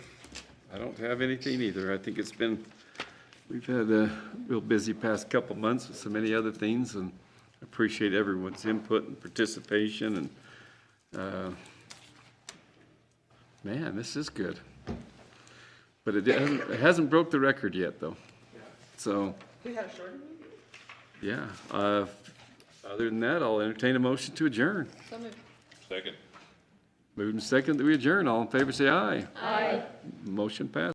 I don't have anything either. I think it's been, we've had a real busy past couple months with so many other things, and I appreciate everyone's input and participation, and, uh, man, this is good. But it hasn't, it hasn't broke the record yet, though. So, We had a short meeting. yeah, uh, other than that, I'll entertain a motion to adjourn. So moved. Second. Moving second that we adjourn. All in favor, say aye. Aye. Motion passed.